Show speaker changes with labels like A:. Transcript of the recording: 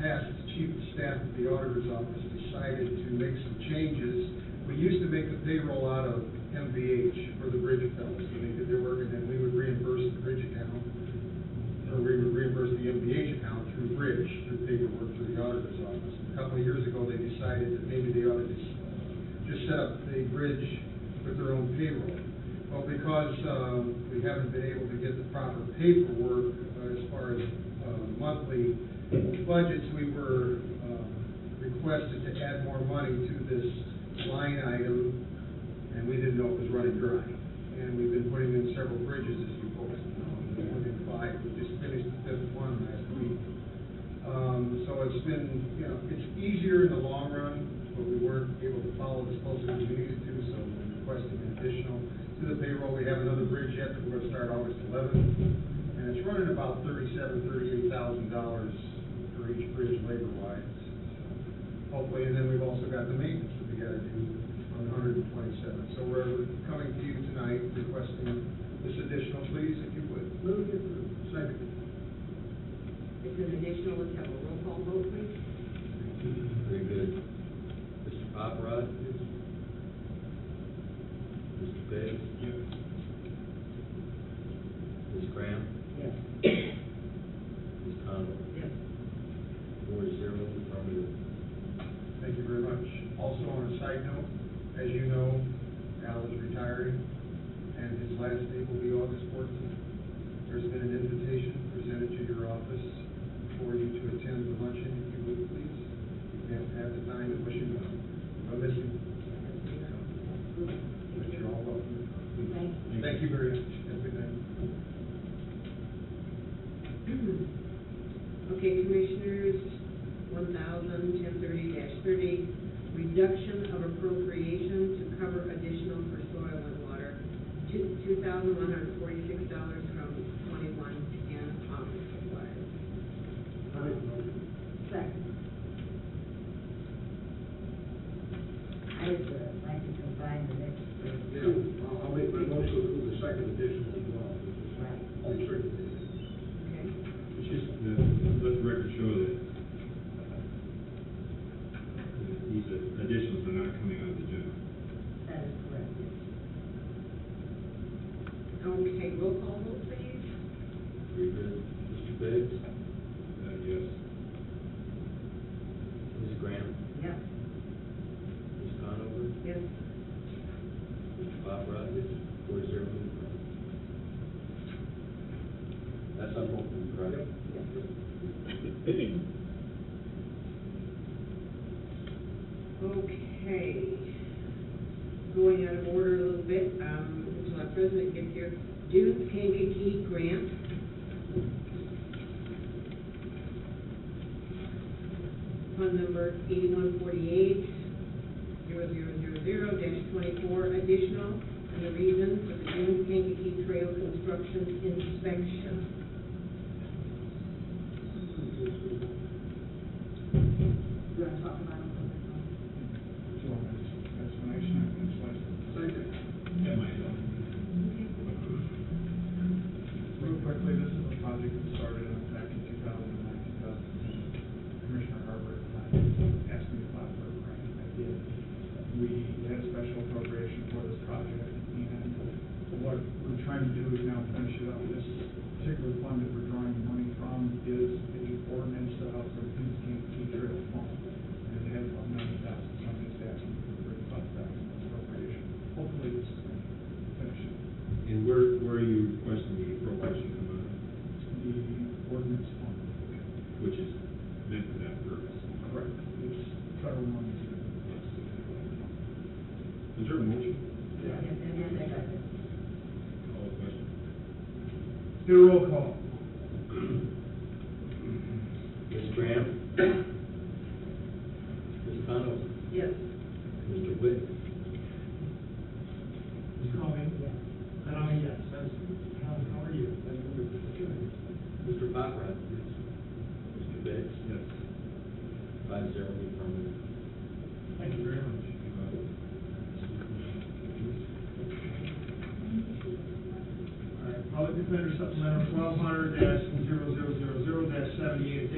A: past, the chief of staff of the auditor's office decided to make some changes. We used to make the payroll out of MVH for the bridge accounts, and they did their work, and then we would reimburse the bridge account, or we would reimburse the MVH account through bridge, through paperwork through the auditor's office. A couple of years ago, they decided that maybe they ought to just, just set up the bridge with their own payroll. Well, because, um, we haven't been able to get the proper paperwork uh, as far as, uh, monthly budgets, we were, um, requested to add more money to this line item, and we didn't know it was running dry. And we've been putting in several bridges, as you folks know, we've put in five, we just finished the fifth one last week. Um, so it's been, you know, it's easier in the long run, but we weren't able to follow as closely as we needed to, so we're requesting an additional to the payroll. We have another bridge yet that we're gonna start August eleventh, and it's running about thirty-seven, thirty-eight thousand dollars for each bridge labor-wise. Hopefully, and then we've also got the maintenance that we gotta do on hundred and twenty-seven. So we're coming to you tonight requesting this additional, please, if you would.
B: Move to approve.
A: Second.
B: It's an additional, let's have a roll call vote, please.
C: Very good. Mr. Paparad? Mr. Pitts? Ms. Graham?
B: Yes.
C: Ms. Conover?
B: Yes.
C: Four to zero, affirmative.
A: Thank you very much. Also, on a side note, as you know, Al is retiring, and his last day will be August fourteenth. There's been an invitation presented to your office for you to attend the luncheon, if you would, please. You can't have the time to wish him well. I'll miss you, but you're all welcome.
B: Thank you.
A: Thank you very much. Have a good night.
B: Okay, Commissioners, one thousand ten thirty thirty, reduction of appropriation to cover additional for soil and water, two, two thousand one hundred forty-six dollars from twenty-one ten office supplies.
D: Second. I would uh, like to combine the next three.
E: Yeah, I'll- I'll make my motion to approve the second addition as well.
D: Right.
A: Oh,
E: All in favor?
B: Okay.
F: It's just, uh, let the record show that these additions are not coming out of the general.
D: That is correct.
B: Okay, roll call vote, please.
C: Very good. Mr. Pitts?
F: Uh, yes.
C: Ms. Graham?
D: Yes.
C: Ms. Conover?
B: Yes.
C: Mr. Paparad? Four to zero, affirmative. That's on both of them, correct?
B: Okay. Going out of order a little bit, um, until our president gets here, Duke Kankakee Grant. Fund number eighty-one forty-eight, zero zero zero zero dash twenty-four additional, and the reason for the Duke Kankakee Trail construction inspection.
D: Do you want to talk about them?
E: Second.
F: That might help.
G: Real quickly, this is a project that started back in 2009, 2010. Commissioner Harper at the time asked me to apply for a grant. I did. We had a special appropriation for this project, and what we're trying to do is now finish it up. This particular fund that we're drawing money from is the ordinance to help with Kings County Teacher Trail Fund. And it has about 90,000, something's asking for 35,000 appropriation. Hopefully, this is going to finish it.
F: And where, where are you requesting the appropriation come out of,
G: the ordinance fund.
F: which is meant for that purpose?
G: Correct. It's federal money.
F: Is there a motion?
D: Yes, and then they got it.
F: Call the question.
A: Do a roll call.
C: Ms. Graham? Ms. Conover?
B: Yes.
C: Mr. Witt?
E: Ms. Coleman?
D: Yes.
E: And I'm a yes. How, how are you?
C: Mr. Paparad? Mr. Pitts?
F: Yes.
C: Five zero, affirmative.
E: Thank you very much. All right, Public Defender Supplemental twelve hundred dash seventy-eight